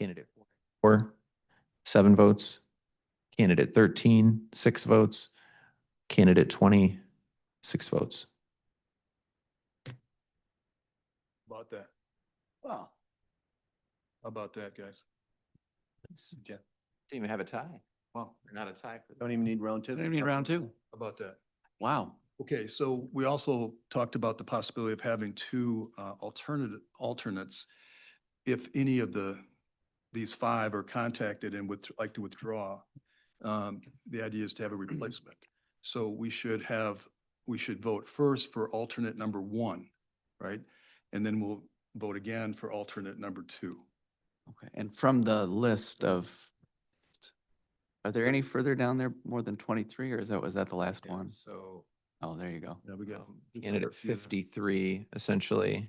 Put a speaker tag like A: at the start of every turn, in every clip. A: Candidate four, seven votes. Candidate 13, six votes. Candidate 20, six votes.
B: About that. Wow. How About that, guys.
A: Didn't even have a tie.
B: Wow.
A: They're Not a tie. for-
C: Don't even need round two.
D: Don't even need round two.
B: How About that.
D: Wow.
B: Okay, so we also talked about the possibility of having two uh, alternative, alternates. If any of the, these five are contacted and would like to withdraw, um, the idea is to have a replacement. So we should have, we should vote first for alternate number one, right? And then we'll vote again for alternate number two.
D: Okay. And from the list of, are there any further down there more than 23 or is that, was that the last
A: Yeah,
D: one?
A: So um,
D: Oh, there you go.
B: Yeah, we got.
A: candidate 53, essentially.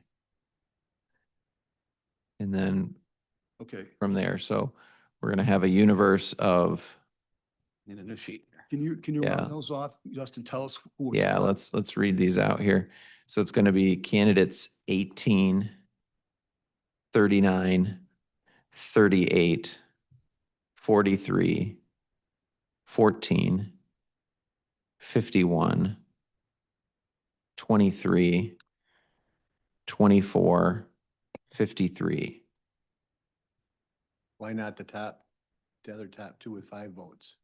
A: And then
B: Okay,
A: from there, so we're going to have a universe of,
D: Need a new sheet. here.
B: can you, can you round
A: Yeah.
B: those off? Justin, tell us. who it's
A: yeah,
B: for.
A: let's, let's read these out here. So it's going to be candidates 18, 39, 38, 43, 14, 51, 23, 24, 53.
C: Why not the top, the other top two with five votes?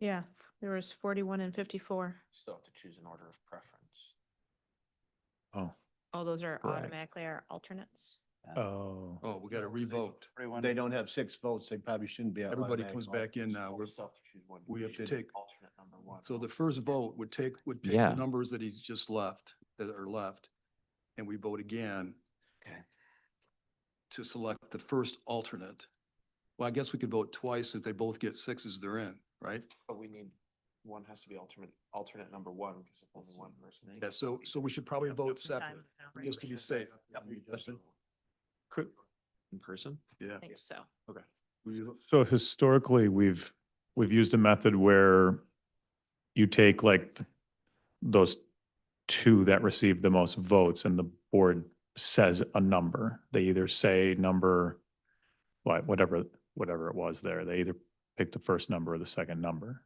E: Yeah, there was forty-one and fifty-four.
F: Still have to choose an order of preference.
G: Oh,
E: All those are
A: Correct.
E: automatically our alternates.
G: oh.
B: Oh, we got to revote.
F: Everyone-
C: They don't have six votes, they probably shouldn't be.
B: Everybody
C: automatic
B: comes
C: vote.
B: back in now.
F: Well,
B: We're-
F: We still have to choose one.
B: we have to
F: should
B: take-
F: Alternate number one.
B: So the first vote would take, would pick
A: Yeah.
B: the numbers that he's just left, that are left, and we vote again
D: Okay.
B: to select the first alternate. Well, I guess we could vote twice if they both get sixes, they're in, right?
F: But we need, one has to be alternate, alternate number one, because if only one person.
B: Yeah, so, so we should probably vote separate,
E: Time now, right?
B: just to be safe.
C: Justin?
A: In person?
B: Yeah.
E: I think so.
G: So historically, we've, we've used a method where you take like those two that receive the most votes and the board says a number. They either say number, what, whatever, whatever it was there. They either pick the first number or the second number.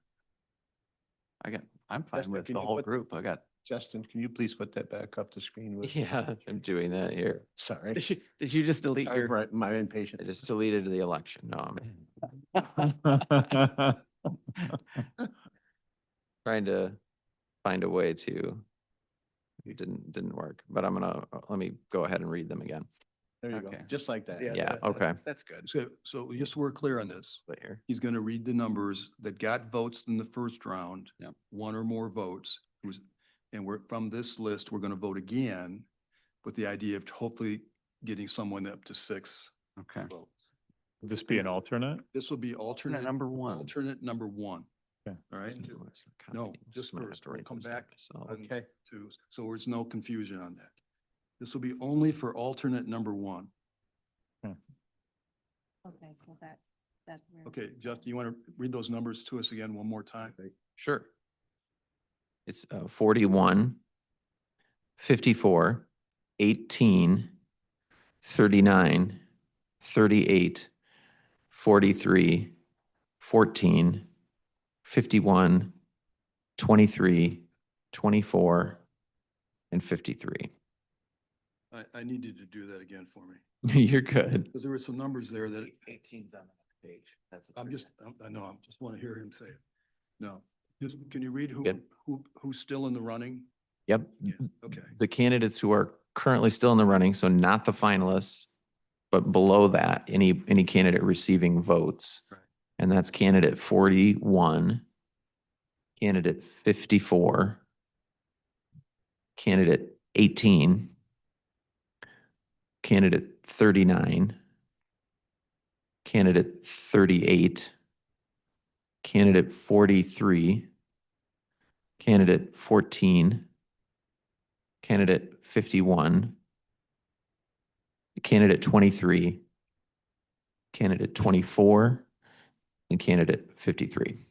D: I got, I'm
C: Justin,
D: fine with
C: can
D: the
C: you
D: whole
C: put-
D: group. I got,
C: Justin, can you please put that back up the screen? with-
A: Yeah, I'm doing that here.
C: Sorry.
D: did you, did you just delete
C: Sorry
D: your?
C: for My
A: I
C: impatience.
A: just deleted the election. No, I'm trying to find a way to, it didn't, didn't work, but I'm gonna, uh, let me go ahead and read them again.
C: There you go,
D: Okay.
C: just like that.
A: Yeah, okay.
D: That's good.
B: So, so just so we're clear on this,
A: Right here.
B: he's going to read the numbers that got votes in the first round.
D: Yep.
B: One or more votes. It was- And we're, from this list, we're going to vote again with the idea of hopefully getting someone up to six
D: Okay.
B: votes.
G: Would this be an alternate?
B: This will be
D: Alternate
B: alternate.
D: number one.
B: Alternate number one. All
G: Okay.
B: right? No, just first. We'll come back on
C: Okay,
B: two, so there's no confusion on that. This will be only for alternate number one.
E: Okay, so that, that's.
B: Okay, Justin, you want to read those numbers to us again one more time?
A: Sure. It's uh, 41, 54, 18, 39, 38, 43, 14, 51, 23, 24, and 53.
B: I, I need you to do that again for me,
A: You're good.
B: because there were some numbers there that
F: Eighteen's on the next page. That's what
B: I'm
F: they're
B: just,
F: doing.
B: I'm- I know, I just want to hear him say it. No, just, can you read who,
A: Good.
B: who, who's still in the running?
A: Yep.
B: Yeah, Okay,
A: the candidates who are currently still in the running, so not the finalists, but below that, any, any candidate receiving votes.
B: Right.
A: And that's candidate forty-one, candidate fifty-four, candidate eighteen, candidate thirty-nine, candidate thirty-eight, candidate forty-three, candidate fourteen, candidate 51, candidate 23, candidate 24, and candidate 53.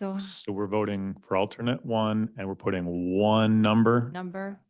H: So
G: So we're voting for alternate one and we're putting one number.
H: number